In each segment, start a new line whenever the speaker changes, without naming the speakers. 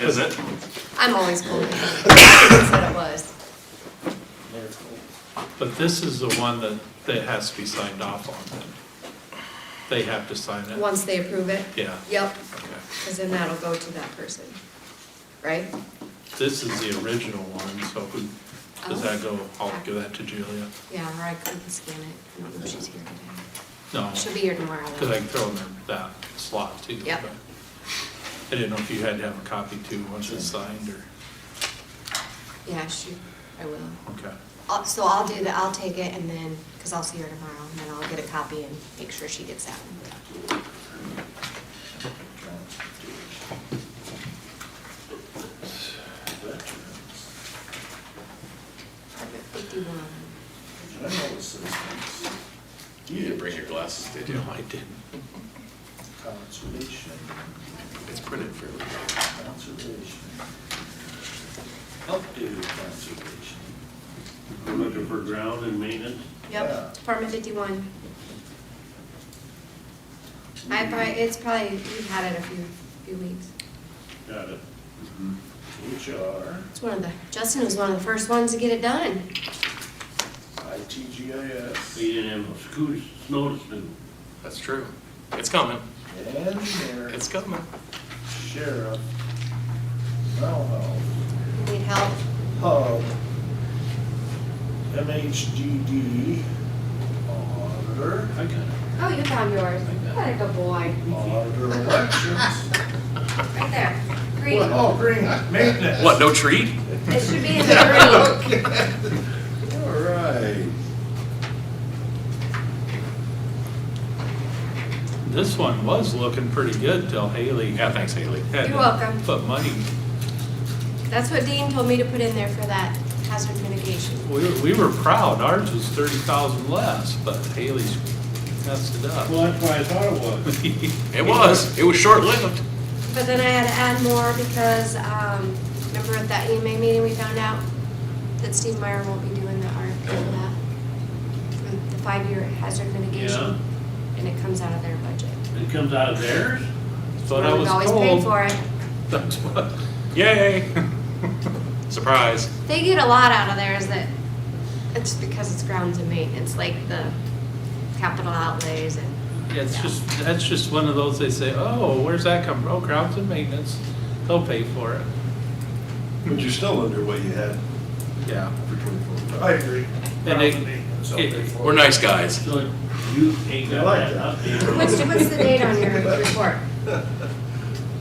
Is it?
I'm always cold. That's what it was.
But this is the one that, that has to be signed off on then. They have to sign it.
Once they approve it?
Yeah.
Yep,
Okay.
because then that'll go to that person, right?
This is the original one, so who, does that go, I'll give that to Julia?
Yeah, or I couldn't scan it. I don't know if she's here today.
No,
She'll be here tomorrow.
because I
though.
can throw in there that slot too.
Yep.
but I didn't know if you had to have a copy too, once it's signed or,
Yeah, she, I will.
okay.
I'll- So I'll do that, I'll take it and then, because I'll see her tomorrow, and then I'll get a copy and make sure she gets that one. Fifty-one.
You need to bring your glasses, did you?
No, I didn't.
Conservation,
It's printed for everybody.
conservation. Updated conservation.
We're looking for ground and maintenance.
Yeah.
Yep, Department fifty-one. I probably, it's probably, we've had it a few, few weeks.
Got it.
HR,
It's one of the, Justin was one of the first ones to get it done.
ITGIS,
We didn't have a school, snow to do.
That's true. It's coming.
and their
It's coming.
sheriff. Mental health,
Need help?
hub, MHGD, auditor,
I got it.
Oh, you found yours. What a good boy.
auditor elections.
Right there. Green.
Well, oh, green, maintenance.
What, no treat?
It should be in the green.
All right.
This one was looking pretty good till Haley.
Yeah, thanks, Haley.
had
You're welcome.
to Put money,
That's what Dean told me to put in there for that hazard mitigation.
we, were- we were proud, ours was thirty thousand less, but Haley's messed it up.
Well, that's why I thought it was.
It was. It was short-lived.
But then I had to add more because, um, remember at that EMA meeting, we found out that Steve Meyer won't be doing the RFP for that, for the five-year hazard
Yeah.
mitigation. And it comes out of their budget.
It comes out of theirs?
But I was told.
We've always paid for it.
That's what,
Yay. Surprise.
They get a lot out of there is that it's because it's grounds and maintenance, like the capital outlays and.
yeah, it's
Yeah.
just, that's just one of those, they say, oh, where's that come from? Oh, grounds and maintenance, they'll pay for it.
But you're still under what you had
Yeah.
for twenty-four.
I agree.
And they-
It's up there for
We're nice guys.
So you ain't got that updated.
What's, what's the date on your report?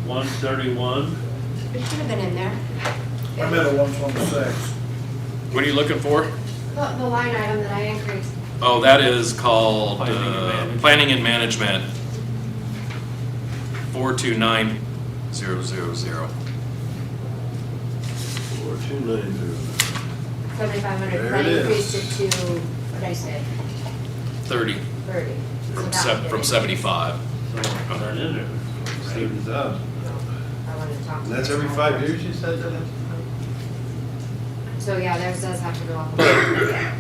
One thirty-one,
It should have been in there.
I'm at a one twenty-six.
What are you looking for?
The, the line item that I increased.
Oh, that is called,
Planning and
uh,
management.
Planning and Management. Four two nine zero zero zero.
Four, two nine zero.
Seventy-five hundred,
There
I
it is.
increased it to, what did I say,
Thirty
thirty. So
from
that
sev-
was
from
it.
seventy-five.
so it's not in there.
Seventy thousand.
I wanted to talk. to
And that's
you
every
about
five
that.
years you said that?
So, yeah, theirs does have to go up.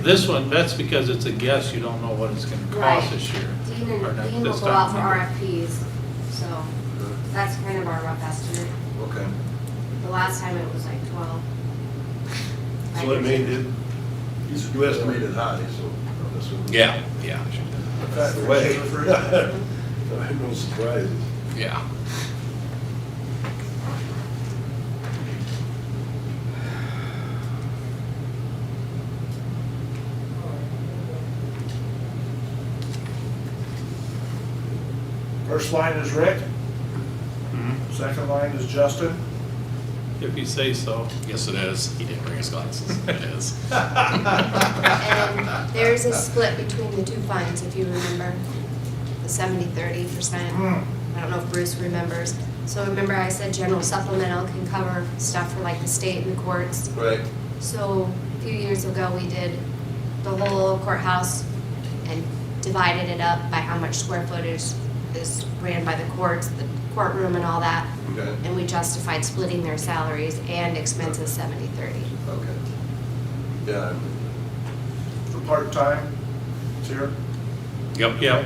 This one, that's because it's a guess, you don't know what it's gonna cost
Right.
this year.
Dean
or
and,
not
Dean will
this
go out for
time.
RFPs, so that's kind of our rough estimate.
Okay.
The last time it was like twelve.
So it made it, you estimated high, so. that's what-
Yeah, yeah,
That's the way. I had no surprises.
yeah.
First line is Rick,
Mm-hmm.
second line is Justin.
If you say so.
Yes, it is. He didn't bring his glasses. It is.
And there's a split between the two funds, if you remember, the 70 30 percent. I don't know if Bruce remembers. So remember I said general supplemental can cover stuff for like the state and the courts.
Right.
So a few years ago, we did the whole courthouse and divided it up by how much square footage is ran by the courts, the courtroom and all that.
Okay.
And we justified splitting their salaries and expenses 70 30.
Okay. Yeah. I'm-
The part-time, it's here.
Yep.
Yep.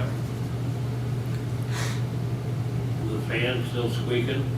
The fan's still squeaking.